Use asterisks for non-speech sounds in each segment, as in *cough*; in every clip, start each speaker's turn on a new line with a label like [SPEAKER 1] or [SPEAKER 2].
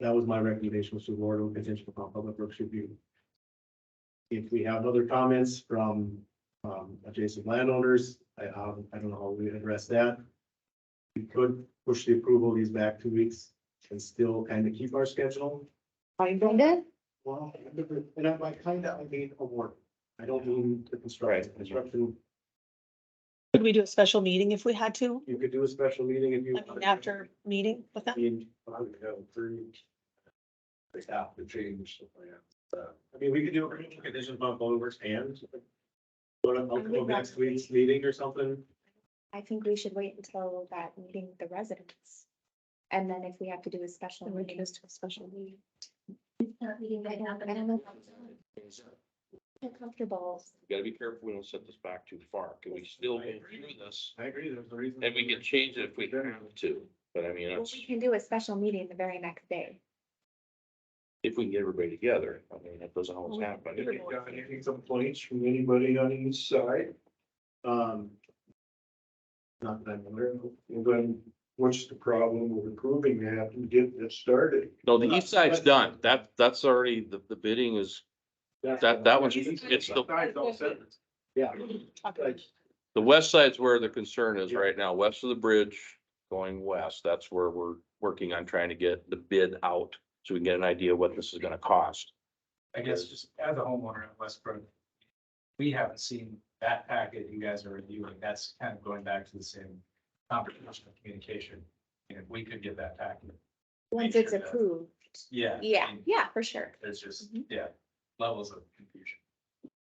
[SPEAKER 1] That was my recommendation, was to award with contingent upon public works review. If we have other comments from um adjacent landowners, I um, I don't know how we address that. We could push the approval of these back two weeks and still kind of keep our schedule.
[SPEAKER 2] Find it?
[SPEAKER 1] Well, and I by kind of, I mean award. I don't mean the construction,
[SPEAKER 3] Right.
[SPEAKER 1] construction,
[SPEAKER 4] Could we do a special meeting if we had to?
[SPEAKER 1] you could do a special meeting if you.
[SPEAKER 4] I mean, after meeting with
[SPEAKER 1] I
[SPEAKER 4] them?
[SPEAKER 1] mean,
[SPEAKER 3] I would have approved. They have to change the plan.
[SPEAKER 1] I mean, we could do a condition upon public works and. Go to, I'll go next week's meeting or something.
[SPEAKER 2] I think we should wait until that meeting with the residents. And then if we have to do a special
[SPEAKER 4] Then we can
[SPEAKER 2] meeting.
[SPEAKER 4] just do a special meeting.
[SPEAKER 2] I'm Comfortable.
[SPEAKER 5] We gotta be careful, we don't set this back too far, can we still
[SPEAKER 1] I
[SPEAKER 5] do
[SPEAKER 1] agree.
[SPEAKER 5] this?
[SPEAKER 1] I agree, there's a reason.
[SPEAKER 5] And we can change it if we have to, but I mean,
[SPEAKER 2] Well,
[SPEAKER 5] that's,
[SPEAKER 2] we can do a special meeting the very next day.
[SPEAKER 5] if we can get everybody together, I mean, that doesn't always happen.
[SPEAKER 3] Have you got any complaints from anybody on each side?
[SPEAKER 1] Um. Not that I'm aware of.
[SPEAKER 3] And then what's the problem with approving that and getting it started?
[SPEAKER 5] No, the east side's done, that, that's already, the, the bidding is, that, that one's, it's the,
[SPEAKER 3] Guys all said it.
[SPEAKER 1] Yeah,
[SPEAKER 4] Talk about it.
[SPEAKER 5] the west side's where the concern is right now, west of the bridge, going west, that's where we're working on trying to get the bid out, so we can get an idea what this is gonna cost.
[SPEAKER 6] I guess just as a homeowner in Westbrook, we haven't seen that packet you guys are reviewing. That's kind of going back to the same conversation of communication. And if we could get that packet,
[SPEAKER 2] Once it's
[SPEAKER 6] sure that-
[SPEAKER 2] approved.
[SPEAKER 6] yeah. I
[SPEAKER 2] Yeah,
[SPEAKER 6] mean,
[SPEAKER 2] yeah, for sure.
[SPEAKER 6] There's just,
[SPEAKER 2] Mhm.
[SPEAKER 6] yeah, levels of confusion.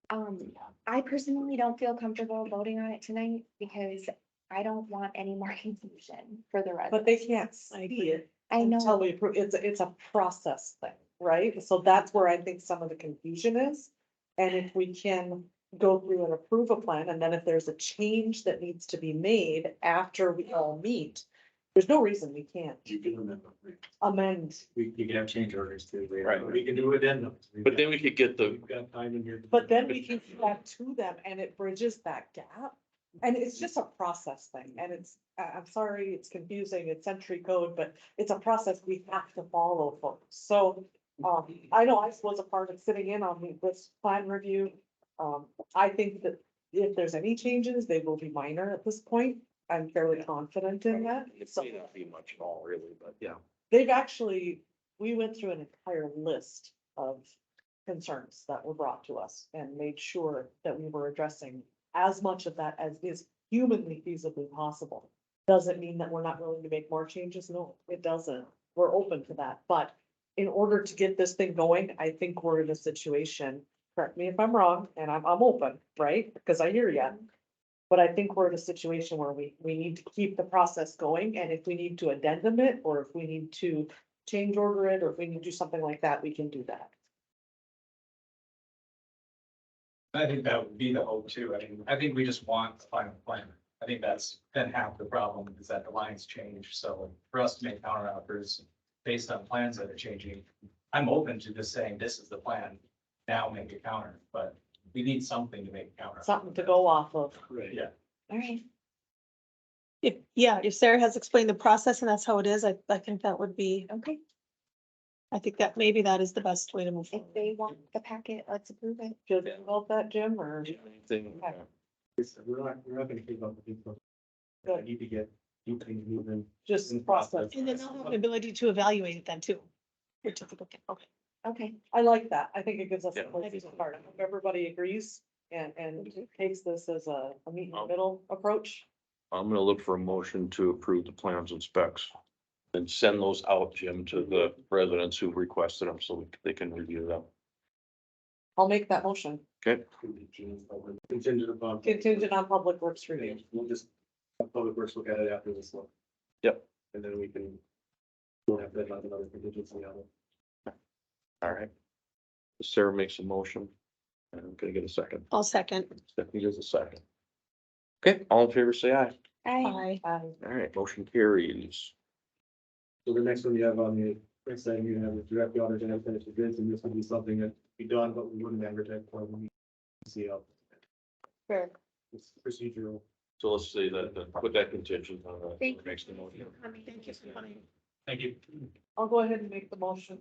[SPEAKER 2] Um, I personally don't feel comfortable voting on it tonight because I don't want any more *laughs* confusion for the
[SPEAKER 7] But
[SPEAKER 2] residents.
[SPEAKER 7] they can't
[SPEAKER 4] I
[SPEAKER 7] see
[SPEAKER 4] agree.
[SPEAKER 7] it
[SPEAKER 2] I
[SPEAKER 7] until
[SPEAKER 2] know,
[SPEAKER 7] we approve. It's, a- it's a process thing, right? So that's where I think some of the confusion is. And if we can go through and approve a plan, and then if there's a change that needs to be made after we all meet, there's no reason we can't
[SPEAKER 1] you can remember.
[SPEAKER 7] amend.
[SPEAKER 1] We, you can have change orders too. later.
[SPEAKER 5] Right.
[SPEAKER 1] We can do addendums.
[SPEAKER 5] But then we could get the,
[SPEAKER 1] We've got time in here.
[SPEAKER 7] But then we can get that to them and it bridges that gap. And it's just a process thing and it's, I, I'm sorry, it's confusing, it's century code, but it's a process we have to follow folks. So, um, I know I was a part of sitting in on the- this plan review. Um, I think that if there's any changes, they will be minor at this point. I'm fairly confident in that.
[SPEAKER 5] it
[SPEAKER 7] So
[SPEAKER 5] may not be much at all really, but yeah.
[SPEAKER 7] they've actually, we went through an entire list of concerns that were brought to us and made sure that we were addressing as much of that as is humanly feasibly possible. Does it mean that we're not willing to make more changes? No, it doesn't. We're open to that, but in order to get this thing going, I think we're in a situation, correct me if I'm wrong, and I'm, I'm open, right? Because I hear you. But I think we're in a situation where we, we need to keep the process going, and if we need to addendum it, or if we need to change order it, or if we need to do something like that, we can do that.
[SPEAKER 6] I think that would be the hope too. I mean, I think we just want the final plan. I think that's been half the problem is that the lines change. So for us to make counter offers based on plans that are changing, I'm open to just saying, this is the plan. Now make a counter, but we need something to make a counter.
[SPEAKER 7] Something to go off of.
[SPEAKER 1] Right.
[SPEAKER 2] all right,
[SPEAKER 4] If, yeah, if Sarah has explained the process and that's how it is, I, I think that would be,
[SPEAKER 2] okay.
[SPEAKER 4] I think that maybe that is the best way to move
[SPEAKER 2] If
[SPEAKER 4] forward.
[SPEAKER 2] they want the packet, let's approve it.
[SPEAKER 7] Feel good about that, Jim, or?
[SPEAKER 5] Thing,
[SPEAKER 7] Okay.
[SPEAKER 1] It's- We're not, we're not gonna keep up with people. I
[SPEAKER 7] Good.
[SPEAKER 1] need to get, you can move in.
[SPEAKER 7] Just
[SPEAKER 1] In
[SPEAKER 7] process.
[SPEAKER 1] process.
[SPEAKER 4] And then they'll have the ability to evaluate it then too. Which is, okay, okay.
[SPEAKER 2] Okay,
[SPEAKER 7] I like that. I think it gives us a
[SPEAKER 5] Yeah.
[SPEAKER 7] place to start. I hope Everybody agrees and, and takes this as a, a meet in the middle approach.
[SPEAKER 5] I'm gonna look for a motion to approve the plans and specs. And send those out, Jim, to the residents who requested them so they can review them.
[SPEAKER 7] I'll make that motion
[SPEAKER 5] Okay,
[SPEAKER 1] Contingent upon.
[SPEAKER 7] contingent on public works review.
[SPEAKER 1] We'll just, have public works look at it after this one.
[SPEAKER 5] Yep.
[SPEAKER 1] And then we can. We'll have that on another contingency on it.
[SPEAKER 5] all right. Sarah makes a motion. And I'm gonna get a second.
[SPEAKER 4] I'll second.
[SPEAKER 5] Stephanie does a second. Okay, all in favor, say aye.
[SPEAKER 2] I,
[SPEAKER 4] Aye.
[SPEAKER 7] Um,
[SPEAKER 5] All right, motion carries.
[SPEAKER 1] So the next one you have on the, next item you have is direct the auditor to finish the bids, and this would be something that be done, but we wouldn't advertise for when we see how
[SPEAKER 4] Fair.
[SPEAKER 1] it's procedural.
[SPEAKER 5] So let's say that, that- put that contingent on the.
[SPEAKER 2] Thank you.
[SPEAKER 5] Makes the motion.
[SPEAKER 4] Thank you for coming.
[SPEAKER 6] Thank you.
[SPEAKER 7] I'll go ahead and make the motion